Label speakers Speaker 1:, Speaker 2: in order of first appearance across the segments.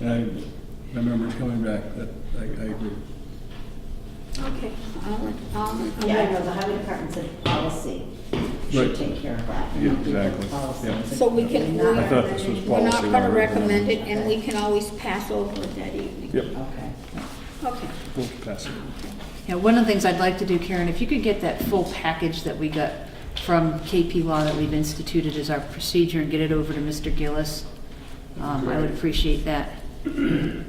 Speaker 1: And I remember it coming back, that, I, I agree.
Speaker 2: Okay, I'll, I'll. I'll
Speaker 3: Yeah, I
Speaker 2: make-
Speaker 3: know, the highway department said policy
Speaker 1: Right.
Speaker 3: should take care of that.
Speaker 1: Yeah,
Speaker 3: and we put the
Speaker 1: exactly,
Speaker 3: policy.
Speaker 1: yeah.
Speaker 2: So we can,
Speaker 3: We're
Speaker 1: I
Speaker 3: not-
Speaker 1: thought this was policy.
Speaker 2: we're not gonna
Speaker 1: rather than-
Speaker 2: recommend it, and we can always pass over it that evening.
Speaker 1: Yep,
Speaker 3: Okay.
Speaker 2: Okay,
Speaker 1: we'll pass it.
Speaker 4: Yeah, one of the things I'd like to do, Karen, if you could get that full package that we got from KP Law that we've instituted as our procedure and get it over to Mr. Gillis, um, I would appreciate that.
Speaker 2: okay.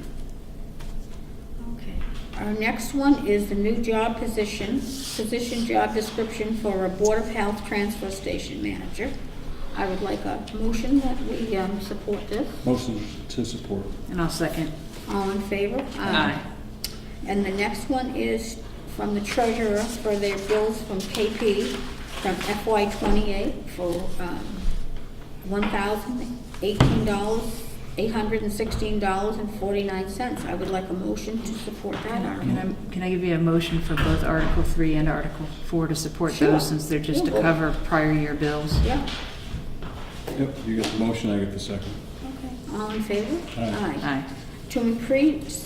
Speaker 2: Our next one is the new job position, position job description for a Board of Health Transfer Station Manager. I would like a motion that we, um, support this.
Speaker 1: Motion to support.
Speaker 4: And I'll second.
Speaker 2: All in favor?
Speaker 4: Aye.
Speaker 2: And the next one is from the treasurer for their bills from KP from FY twenty-eight for, um, one thousand eighteen dollars, eight hundred and sixteen dollars and forty-nine cents. I would like a motion to support that
Speaker 4: Can
Speaker 2: article.
Speaker 4: I, can I give you a motion for both Article Three and Article Four to support
Speaker 2: Sure.
Speaker 4: those, since they're just to
Speaker 2: Yeah.
Speaker 4: cover prior year bills?
Speaker 2: Yeah,
Speaker 1: Yep, you get the motion, I get the second.
Speaker 2: okay. All in favor?
Speaker 1: Aye.
Speaker 4: Aye.
Speaker 2: To increase,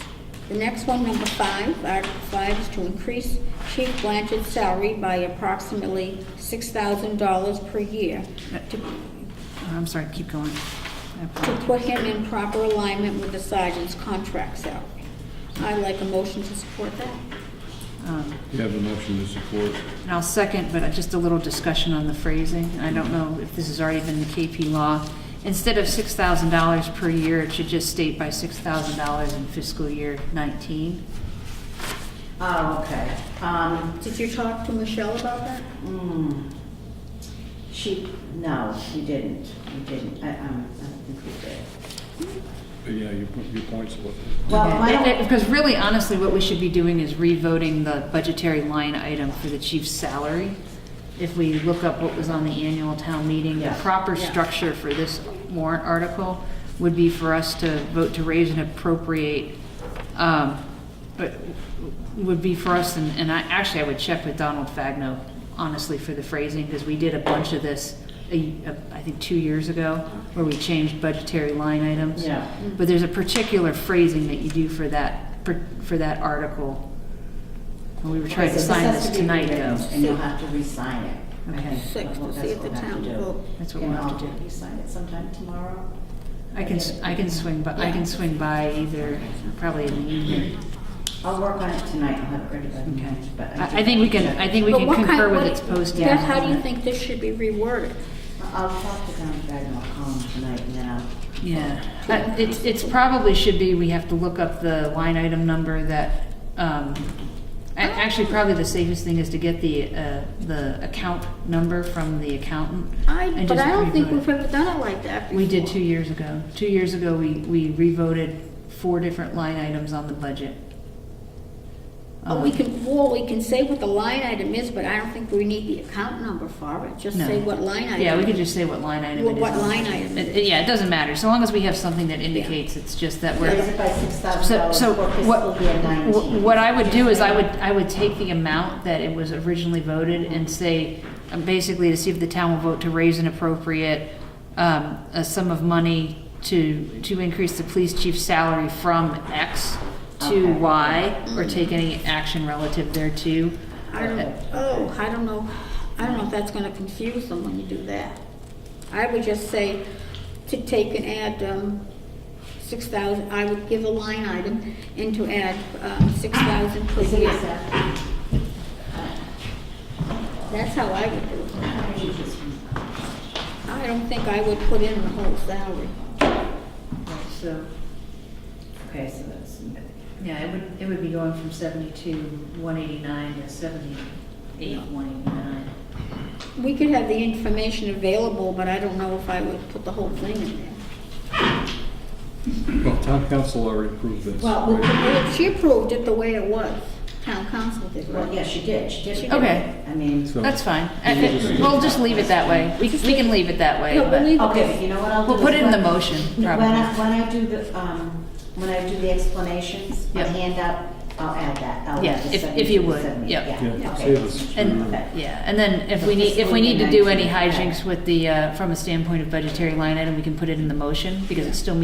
Speaker 2: the next one, number five, Article five is to increase Chief Blanchard's salary by approximately six thousand dollars per year to,
Speaker 4: I'm sorry, keep going.
Speaker 2: to
Speaker 4: I apologize.
Speaker 2: put him in proper alignment with the sergeant's contract salary. I'd like a motion to support that.
Speaker 4: Um,
Speaker 1: You have a motion to support.
Speaker 4: And I'll second, but just a little discussion on the phrasing. I don't know if this has already been the KP law. Instead of six thousand dollars per year, it should just state by six thousand dollars in fiscal year nineteen.
Speaker 3: Oh, okay. Um,
Speaker 2: Did you talk to Michelle about that?
Speaker 3: mm, she, no, we didn't, we didn't, I, um, I don't think we did.
Speaker 1: But yeah, your, your points with
Speaker 3: Well, my,
Speaker 4: It- it- Because really, honestly, what we should be doing is revoting the budgetary line item for the chief's salary. If we look up what was on the annual town meeting, the
Speaker 3: Yeah.
Speaker 4: proper
Speaker 2: Yeah.
Speaker 4: structure for this warrant article would be for us to vote to raise and appropriate, um, but would be for us, and, and I, actually, I would check with Donald Fagno, honestly, for the phrasing, because we did a bunch of this, a- a- I think, two years ago, where we changed budgetary line items.
Speaker 3: Yeah.
Speaker 4: But there's a particular phrasing that you do for that, per- for that article. And we were trying to
Speaker 3: Okay, so
Speaker 4: sign
Speaker 3: has
Speaker 4: this
Speaker 3: to be
Speaker 4: tonight,
Speaker 3: rewritten,
Speaker 4: though.
Speaker 3: And you'll have to re-sign it. I
Speaker 4: Okay.
Speaker 3: think
Speaker 2: Six, to
Speaker 3: that's
Speaker 2: see if
Speaker 3: what
Speaker 2: the
Speaker 3: we'll have
Speaker 2: town
Speaker 3: to do.
Speaker 2: will-
Speaker 4: That's what we'll
Speaker 3: And
Speaker 4: have to
Speaker 3: I'll
Speaker 4: do.
Speaker 3: have sign it sometime tomorrow.
Speaker 4: I can, s- I can swing, by. I can swing by either, probably in the evening.
Speaker 3: I'll work on it tonight, I'll have it ready by
Speaker 4: Okay.
Speaker 3: tonight, but I do
Speaker 4: I, I think we
Speaker 3: want to
Speaker 4: can,
Speaker 3: check.
Speaker 4: I think we
Speaker 2: But
Speaker 4: can
Speaker 2: what kind-
Speaker 4: concur with
Speaker 2: what-
Speaker 4: its posting.
Speaker 2: Beth, how do you think this should be reworded?
Speaker 3: I'll talk to Don Fagin, I'll call him tonight and then I'll
Speaker 4: Yeah, Uh, it's, it's probably should be, we have to look up the line item number that, um, a- actually, probably the safest thing is to get the, uh, the account number from the accountant.
Speaker 2: I,
Speaker 4: and
Speaker 2: but
Speaker 4: just
Speaker 2: I don't think
Speaker 4: revote it.
Speaker 2: we've ever done it like that before.
Speaker 4: We did two years ago. Two years ago, we, we revoted four different line items on the budget.
Speaker 2: But we
Speaker 4: Um,
Speaker 2: can, well, we can say what the line item is, but I don't think we need the account number for it, just
Speaker 4: no.
Speaker 2: say what line item.
Speaker 4: Yeah, we could just say what line item it
Speaker 2: Well,
Speaker 4: is.
Speaker 2: what
Speaker 4: on.
Speaker 2: line item it
Speaker 4: It-
Speaker 2: is.
Speaker 4: Yeah, it doesn't matter, so long as we have something that indicates it's just that we're.
Speaker 3: raise it by six thousand
Speaker 4: So,
Speaker 3: dollars
Speaker 4: so
Speaker 3: for fiscal
Speaker 4: what,
Speaker 3: year nineteen.
Speaker 4: wh- what I would do is I would, I would take the amount that it was originally voted and say, um, basically to see if the town will vote to raise an appropriate, um, a sum of money to, to increase the police chief's salary from X to
Speaker 3: Okay.
Speaker 4: Y, or take any action relative thereto.
Speaker 2: I don't, oh, I don't know, I don't know if that's gonna confuse them when you do that. I would just say to take and add, um, six thousand, I would give a line item and to add, um, six thousand per
Speaker 3: Is it
Speaker 2: year.
Speaker 3: exact-
Speaker 2: That's how I would do it.
Speaker 3: how many is this one?
Speaker 2: I don't think I would put in the whole salary.
Speaker 4: Uh, So,
Speaker 3: Okay, so that's,
Speaker 4: yeah, it would, it would be going from seventy-two, one eighty-nine to seventy-eight, one eighty-nine.
Speaker 2: We could have the information available, but I don't know if I would put the whole thing in there.
Speaker 1: Well, town council already approved this.
Speaker 3: Well, we-
Speaker 1: right?
Speaker 2: Well, She approved it the way it was, town council did,
Speaker 3: well,
Speaker 2: right?
Speaker 3: yeah, she did, she did.
Speaker 4: Okay.
Speaker 3: I mean,
Speaker 1: So-
Speaker 4: That's fine.
Speaker 1: You
Speaker 4: Uh,
Speaker 1: can just leave it
Speaker 4: We'll just leave it that way. We we can leave it that way,
Speaker 2: No, we'll leave
Speaker 4: but,
Speaker 3: okay, but you know what I'll do?
Speaker 4: We'll put
Speaker 3: is
Speaker 4: it in the
Speaker 3: when-
Speaker 4: motion,
Speaker 3: When I,
Speaker 4: probably.
Speaker 3: when I do the, um, when I do the explanations, I
Speaker 4: Yep.
Speaker 3: hand out, I'll add that. I'll add
Speaker 4: Yeah,
Speaker 3: the
Speaker 4: if- if
Speaker 3: 72,
Speaker 4: you would,
Speaker 3: 78,
Speaker 4: yep.
Speaker 3: Yeah,
Speaker 1: Yeah,
Speaker 3: okay.
Speaker 1: save us.
Speaker 3: Okay.
Speaker 4: and,
Speaker 1: Okay.
Speaker 4: yeah, and then if we need, if we need to do any hijinks with the, uh, from a standpoint of budgetary line item, we can put it in the motion, because it still meets